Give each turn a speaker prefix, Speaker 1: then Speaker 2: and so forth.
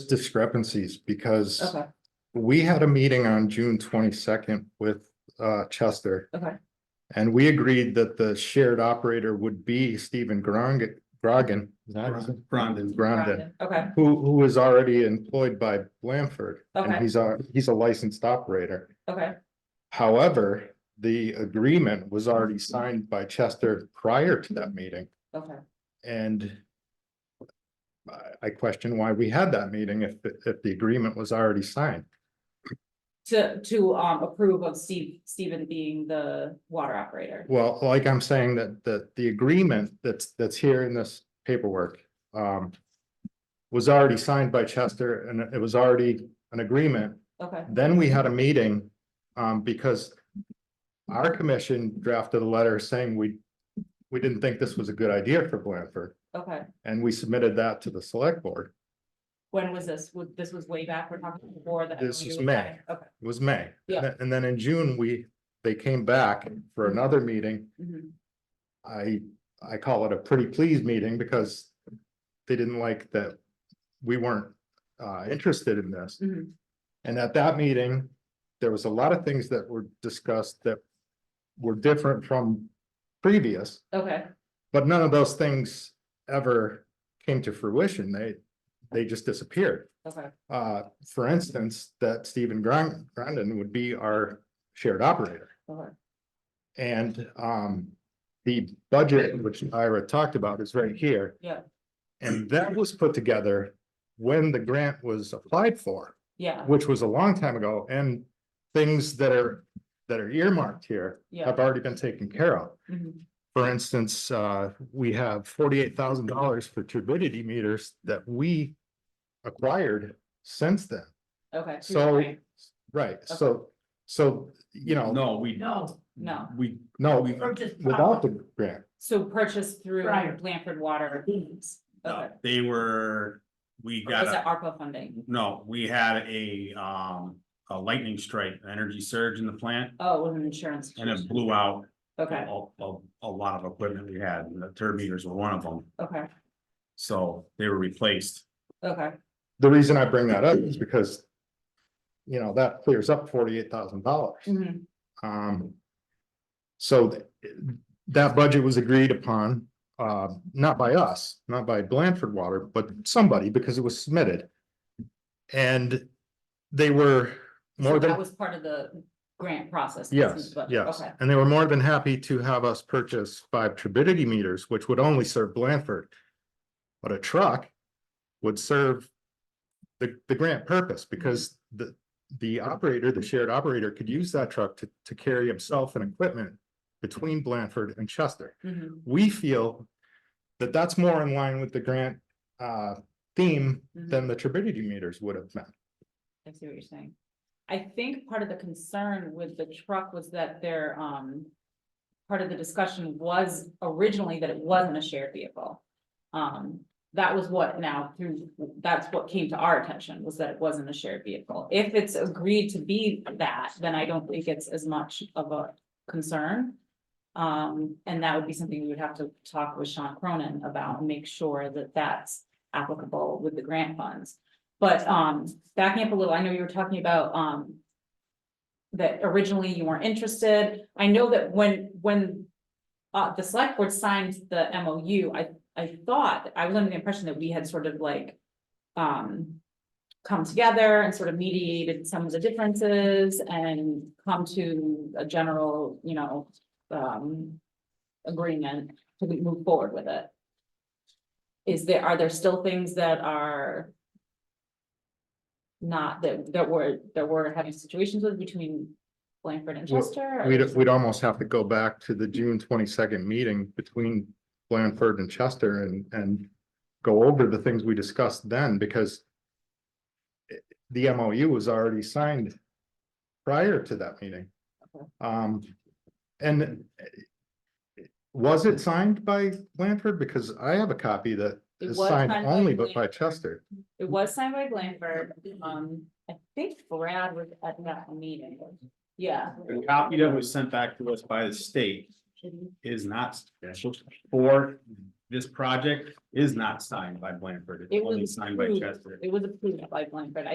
Speaker 1: discrepancies because
Speaker 2: Okay,
Speaker 1: we had a meeting on June twenty-second with uh Chester.
Speaker 2: Okay.
Speaker 1: And we agreed that the shared operator would be Stephen Grong- Grogan. is that his name?
Speaker 3: Grondin.
Speaker 1: Grondin,
Speaker 2: Brandon, okay,
Speaker 1: who who is already employed by Blanford. And
Speaker 2: Okay.
Speaker 1: he's a, he's a licensed operator.
Speaker 2: okay,
Speaker 1: However, the agreement was already signed by Chester prior to that meeting.
Speaker 2: okay,
Speaker 1: And I, I question why we had that meeting if, the- if the agreement was already signed.
Speaker 2: to, to, um, approve of Steve, Steven being the water operator.
Speaker 1: Well, like I'm saying that, that the agreement that's, that's here in this paperwork, um, was already signed by Chester and it was already an agreement.
Speaker 2: Okay,
Speaker 1: Then we had a meeting, um, because our commission drafted a letter saying we, we didn't think this was a good idea for Blanford.
Speaker 2: okay,
Speaker 1: And we submitted that to the select board.
Speaker 2: when was this, Would- this was way back, we're talking before that.
Speaker 1: This was
Speaker 2: is
Speaker 1: May.
Speaker 2: Okay,
Speaker 1: It was May.
Speaker 2: Yeah.
Speaker 1: And then in June, we, they came back for another meeting.
Speaker 2: mhm,
Speaker 1: I, I call it a pretty please meeting because they didn't like that we weren't uh, interested in this.
Speaker 2: mhm,
Speaker 1: And at that meeting, there was a lot of things that were discussed that were different from previous,
Speaker 2: okay,
Speaker 1: but none of those things ever came to fruition. They, they just disappeared.
Speaker 2: okay,
Speaker 1: Uh, for instance, that Stephen Grund- Grundon would be our shared operator.
Speaker 2: okay,
Speaker 1: And um, the budget, which Ira talked about, is right here.
Speaker 2: Yeah.
Speaker 1: And that was put together when the grant was applied for,
Speaker 2: yeah,
Speaker 1: which was a long time ago, and things that are, that are earmarked here
Speaker 2: yeah.
Speaker 1: have already been taken care of.
Speaker 2: mhm,
Speaker 1: For instance, uh, we have forty-eight thousand dollars for turbidity meters that we acquired since then.
Speaker 2: Okay. to your
Speaker 1: So,
Speaker 2: point.
Speaker 1: right, so, so, you know,
Speaker 3: No, we.
Speaker 4: No,
Speaker 2: No.
Speaker 3: We,
Speaker 1: no,
Speaker 3: we,
Speaker 4: or just.
Speaker 1: without the grant,
Speaker 2: So purchased through
Speaker 4: Prior.
Speaker 2: Blanford Water.
Speaker 3: no,
Speaker 2: Okay,
Speaker 3: they were, we
Speaker 2: or
Speaker 3: got
Speaker 2: was it
Speaker 3: a,
Speaker 2: ARPA funding?
Speaker 3: no, we had a, um, a lightning strike, energy surge in the plant.
Speaker 2: Oh, it was an insurance.
Speaker 3: And it
Speaker 2: situation.
Speaker 3: blew out
Speaker 2: Okay,
Speaker 3: a, a, a lot of equipment we had, and the turb meters were one of them,
Speaker 2: okay,
Speaker 3: so they were replaced.
Speaker 2: okay,
Speaker 1: the reason I bring that up
Speaker 2: Mm-hmm.
Speaker 1: is because. You know, that clears up forty-eight thousand dollars.
Speaker 2: mhm,
Speaker 1: Um. So th- that budget was agreed upon, uh, not by us, not by Blanford Water, but somebody, because it was submitted. And they were
Speaker 2: so
Speaker 1: more
Speaker 2: that
Speaker 1: than,
Speaker 2: was part of the grant process. this is
Speaker 1: yes,
Speaker 2: what-
Speaker 1: yes,
Speaker 2: Okay,
Speaker 1: and they were more than happy to have us purchase five turbidity meters, which would only serve Blanford. But a truck would serve the, the grant purpose, because the, the operator, the shared operator could use that truck to, to carry himself and equipment between Blanford and Chester.
Speaker 2: mhm.
Speaker 1: We feel that that's more in line with the grant, uh, theme than the turbidity meters would have been.
Speaker 2: I see what you're saying. I think part of the concern with the truck was that their, um. Part of the discussion was originally that it wasn't a shared vehicle. Um, that was what now through, that's what came to our attention was that it wasn't a shared vehicle. If it's agreed to be that, then I don't think it's as much of a concern. Um, and that would be something we would have to talk with Sean Cronin about and make sure that that's applicable with the grant funds. But um, backing up a little, I know you were talking about um. That originally you weren't interested. I know that when, when. Uh, the select board signed the MOU, I, I thought, I was under the impression that we had sort of like. Um. Come together and sort of mediated some of the differences and come to a general, you know, um. Agreement to move forward with it. Is there, are there still things that are? not that that we're that we're having situations with between Blanford and
Speaker 1: Well,
Speaker 2: Chester? or-
Speaker 1: We'd, we'd almost have to go back to the June twenty-second meeting between Blanford and Chester and, and go over the things we discussed then, because it- the MOU was already signed prior to that meeting.
Speaker 2: Okay.
Speaker 1: Um, and was it signed by Blanford? Because I have a copy that
Speaker 2: It
Speaker 1: is
Speaker 2: was
Speaker 1: signed
Speaker 2: signed by
Speaker 1: only but by
Speaker 2: Blanford.
Speaker 1: Chester.
Speaker 2: It was signed by Blanford, um, I think Brad was at that meeting, yeah.
Speaker 3: The copy that was sent back to us by the state is not special for This project is not signed by Blanford,
Speaker 2: It
Speaker 3: it's only
Speaker 2: was
Speaker 3: signed by
Speaker 2: approved.
Speaker 3: Chester.
Speaker 2: It was approved by Blanford.